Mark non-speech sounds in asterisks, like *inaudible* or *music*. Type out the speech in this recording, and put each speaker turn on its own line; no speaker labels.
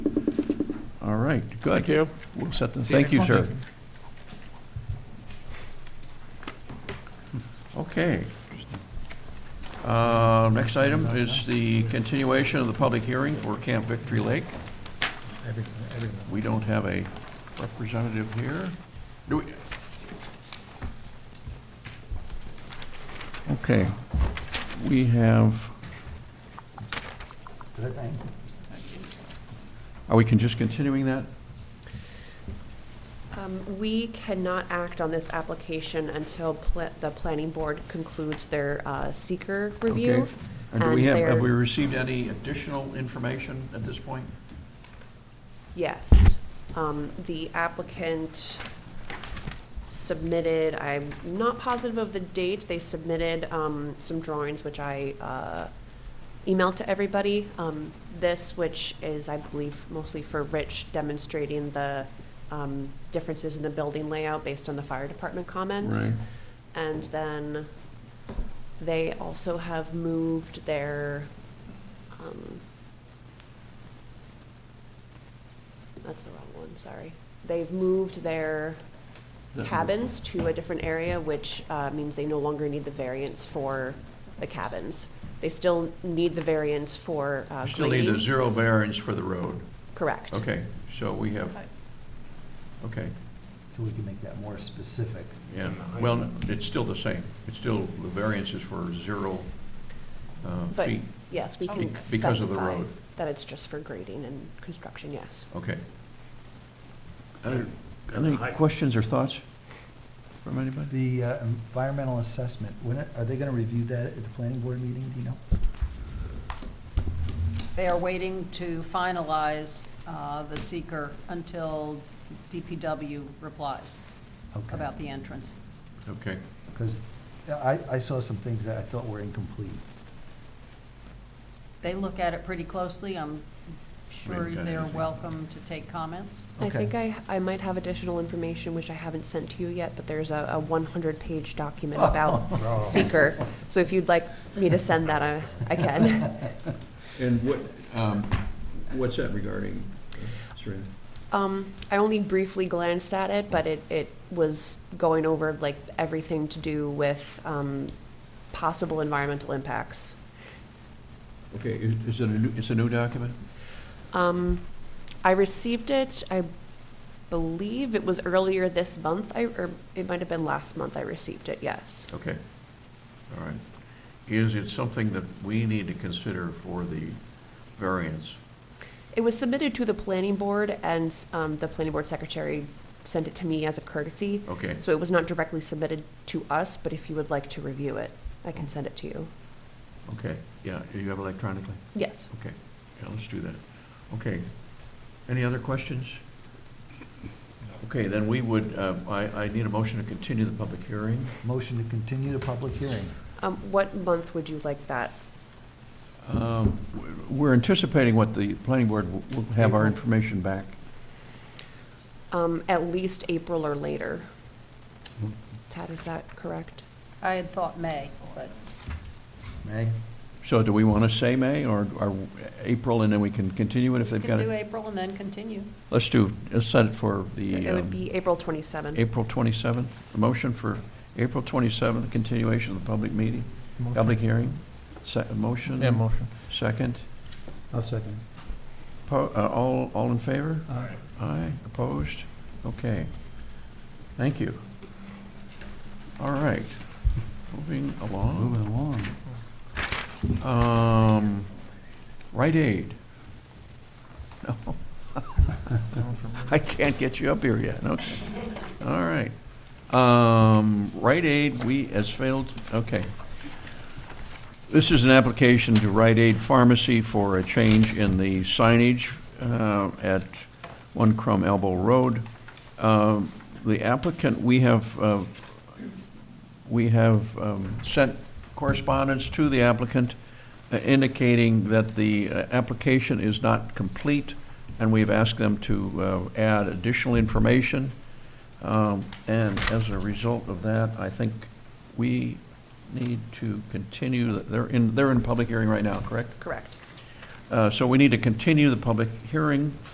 All right,
Thank
good.
you.
We'll set the,
See you
thank you,
next
sir.
month.
Okay. Uh, Next item is the continuation of the public hearing for Camp Victory Lake.
Every- every month.
We don't have a representative here. Do we? Okay, we have, are we can just continuing that?
Um, We cannot act on this application until pla- the planning board concludes their uh, seeker review.
Okay. And do we
and
have, have
they're-
we
*laughs*
received any additional information at this point?
Yes. Um, The applicant submitted, I'm not positive of the date, they submitted um, some drawings, which I uh, emailed to everybody. Um, This, which is, I believe, mostly for Rich demonstrating the um, differences in the building layout based on the fire department comments. And then they also have moved their, um, that's the wrong one, sorry. They've moved their
That-
cabins to a different area, which, uh, means they no longer need the variance for the cabins. They still need the variance for, uh,
Still need the
grading.
zero variance for the road.
Correct.
Okay, so we have, okay,
So we can make that more specific.
yeah, well, it's still the same. It's still, the variance is for zero uh,
But,
feet.
yes, we
Bec-
can
because of the
specify
road.
that it's just for grading and construction, yes.
Okay. Any- Any questions or thoughts from anybody?
The uh, environmental assessment, when, it- are they going to review that at the planning board meeting, do you know?
They are waiting to finalize uh, the seeker until DPW replies
Okay.
about the entrance.
Okay,
Because I, I saw some things that I thought were incomplete.
*laughs*
They look at it pretty closely. I'm sure
We've got
they're
anything.
welcome to take comments.
I
Okay.
think I, I might have additional information which I haven't sent to you yet, but there's a, a one hundred
*laughs*
page document
*laughs* Oh.
about seeker. So if you'd like me to send that, I,
*laughs*
I can.
and what, um, what's that regarding, uh, Serena?
Um, I only briefly glanced at it, but it, it was going over like everything to do with, um, possible environmental impacts.
Okay, is is it a new, it's a new document?
Um, I received it, I believe it was earlier this month, I, or it might have been last month I received it, yes.
Okay, all right. Is it something that we need to consider for the variance?
It was submitted to the planning board, and um, the planning board secretary sent it to me as a courtesy.
Okay,
So it was not directly submitted to us, but if you would like to review it, I can send it to you.
okay, yeah, you have electronically?
Yes.
Okay, yeah, let's do that. Okay, any other questions? Okay, then we would, uh, I, I need a motion to continue the public hearing.
Motion to continue the public hearing.
Um, What month would you like that?
Um, we're- We're anticipating what the planning board will- will have our
April.
information back.
Um, At least April or later.
Mm-hmm.
Tad, is that correct?
I had thought May, but
May?
So do we want to say May or, or April, and then we can continue it if
we
they've got
can do
it?
April and then continue.
Let's do, let's set it for the.
It
um,
would be April 27th.
April 27th, a motion for April 27th, continuation of the public meeting, public hearing, se- a motion?
Yeah, motion.
Second,
I'll second.
Po- uh, all, all in favor?
All
Aye, opposed? Okay. Thank you. All right, moving along.
Moving along.
Um, Rite Aid. *laughs* No, I can't get you up here yet, okay. All right. Um, Rite Aid, we, has failed, okay. This is an application to Rite Aid Pharmacy for a change in the signage uh, at One Crum Elbow Road. Um, The applicant, we have, uh, we have um, sent correspondence to the applicant uh, indicating that the uh, application is not complete, and we've asked them to uh, add additional information. Um, And as a result of that, I think we need to continue, they're in, they're in public hearing right now, correct?
Correct.
Uh, So we need to continue the public hearing